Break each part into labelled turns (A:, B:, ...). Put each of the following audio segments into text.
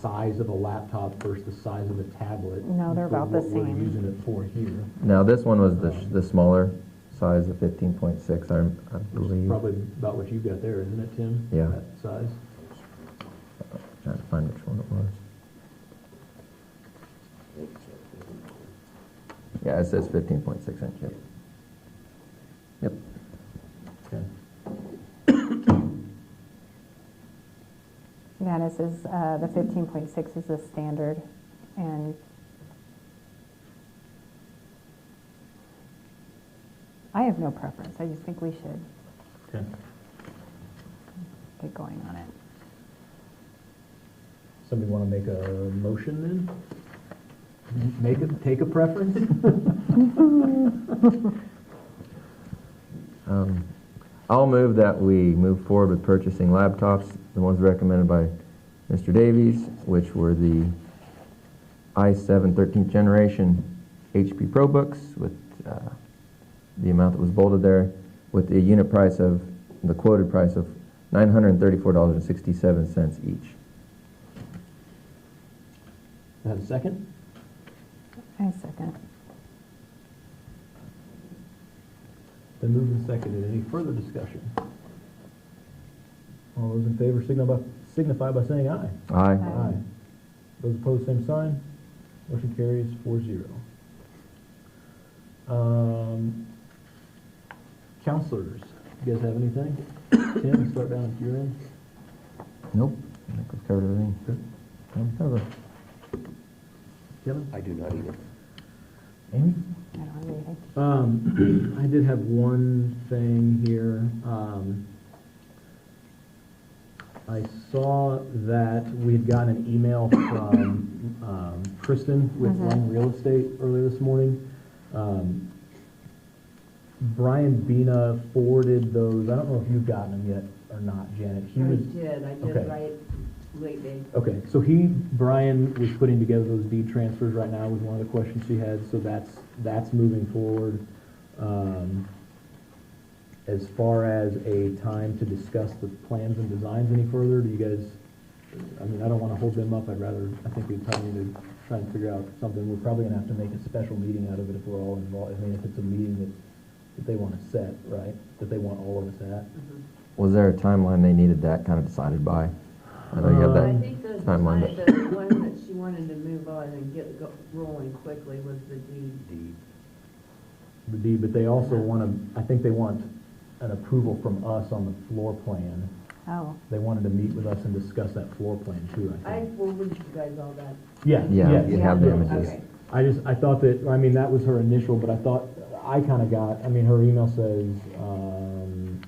A: size of a laptop versus the size of a tablet.
B: No, they're
A: for
B: about the
A: what we're
B: same.
A: using it for here,
C: Now, this one was the, sh- the smaller size, the fifteen point six, I, I
A: which is
C: believe.
A: probably about what you've got there, isn't it, Tim?
C: Yeah.
A: That size?
C: Trying to find which one it was. Yeah, it says fifteen point six inch, yep. Yep,
A: Okay.
B: Yeah, this is, uh, the fifteen point six is the standard, and I have no preference, I just think we should
A: Okay.
B: get going on it.
A: Somebody want to make a motion then? Make a, take a preference?
C: um, I'll move that we move forward with purchasing laptops, the ones recommended by Mr. Davies, which were the i7 13th generation HP ProBooks with uh, the amount that was bolded there, with the unit price of, the quoted price of $934.67 each.
A: Have a second?
B: I second.
A: Then moved and seconded. Any further discussion? All those in favor signify, signify by saying aye.
C: Aye.
B: Aye.
A: Those opposed, same sign. Motion carries four zero. Um, counselors, you guys have anything? Tim, start down at your end.
C: Nope, I think we've covered everything. Um, cover.
A: Kevin?
D: I do not either.
A: Amy?
B: I don't have anything.
A: Um, I did have one thing here. Um, I saw that we had gotten an email from um, Kristen with
E: Mm-hmm.
B: Mhm.
A: Lang Real Estate earlier this morning. Um, Brian Bina forwarded those. I don't know if you've gotten them yet or not, Janet. He
E: I
A: was
E: did, I
A: okay.
E: did right lately.
A: Okay, so he, Brian, was putting together those deed transfers right now was one of the questions she had, so that's, that's moving forward. Um, As far as a time to discuss the plans and designs any further, do you guys, I mean, I don't wanna hold them up, I'd rather, I think we probably need to try and figure out something. We're probably gonna have to make a special meeting out of it if we're all involved, I mean, if it's a meeting that, that they wanna set, right? That they want all of us at.
C: Um, Was there a timeline they needed that kind of decided by? I know you have
E: I
C: that.
E: think the, the
C: Timeline.
E: one that she wanted to move on and get go- rolling quickly was the deed.
D: Deed.
A: the deed, but they also want to, I think they want an approval from us on the floor plan.
B: Oh,
A: They wanted to meet with us and discuss that floor plan too, I
E: I
A: think.
E: forwarded you guys all that.
A: Yeah,
C: Yeah,
A: yeah.
C: you have the
A: yeah.
C: images.
E: Okay.
A: I just, I thought that, I mean, that was her initial, but I thought, I kind of got, I mean, her email says, um,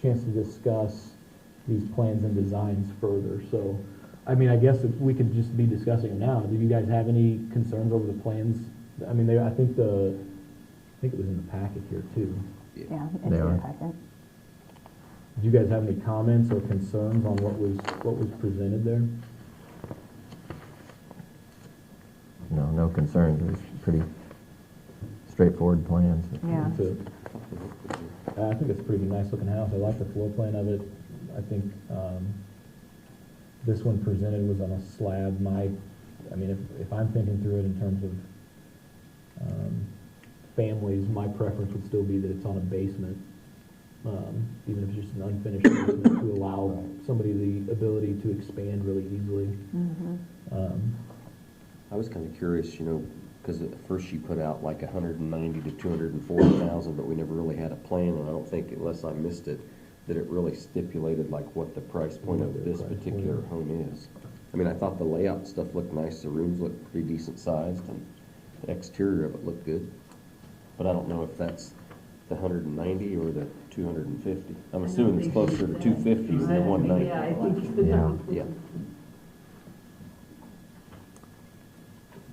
A: chance to discuss these plans and designs further, so, I mean, I guess if we could just be discussing them now. Do you guys have any concerns over the plans? I mean, they, I think the, I think it was in the packet here too.
B: yeah, it's
C: They
B: in
C: are.
B: the packet.
A: Do you guys have any comments or concerns on what was, what was presented there?
C: No, no concerns, it was pretty straightforward plans.
B: Yeah.
A: It's a- I think it's a pretty nice looking house. I like the floor plan of it. I think, um, this one presented was on a slab. My, I mean, if, if I'm thinking through it in terms of, um, families, my preference would still be that it's on a basement. Um, even if it's just an unfinished basement to allow somebody the ability to expand really easily.
B: Mm-hmm.
A: Um,
D: I was kind of curious, you know, because at first she put out like a hundred and ninety to two hundred and forty thousand, but we never really had a plan, and I don't think, unless I missed it, that it really stipulated like what the price point
A: What
D: of
A: the
D: this
A: price point.
D: particular home is. I mean, I thought the layout stuff looked nice, the rooms looked pretty decent sized, and the exterior of it looked good. But I don't know if that's the hundred and ninety or the two hundred and fifty. I'm assuming it's closer to two fifty than the one ninety.
E: Yeah, I think you said
C: Yeah.
E: that.
D: Yeah.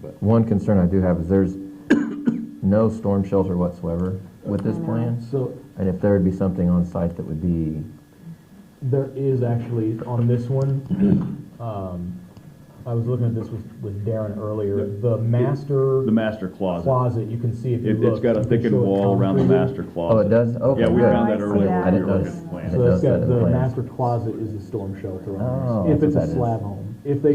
D: But
C: One concern I do have is there's no storm shelter whatsoever with this
B: I know.
C: plan.
A: So
C: And if there would be something on site that would be,
A: There is actually, on this one, um, I was looking at this with, with Darren earlier, the master
F: The master closet.
A: closet, you can see if you
F: It-
A: look.
F: It's got
A: you
F: a
A: can
F: thickened
A: show it
F: wall around the
A: concreted.
F: master closet.
C: oh, it does? Okay,
F: Yeah, we
C: good.
F: found
B: Oh, I
F: that
B: see
F: earlier
B: that.
F: when we
C: I
F: were
C: didn't
F: looking at the
C: notice.
F: plan.
C: It
A: So it's
C: does
A: got,
C: that in the
A: the
C: plan.
A: master closet is the storm shelter on
C: Oh,
A: this, if it's
C: that's what
A: a
C: that is.
A: slab home. if they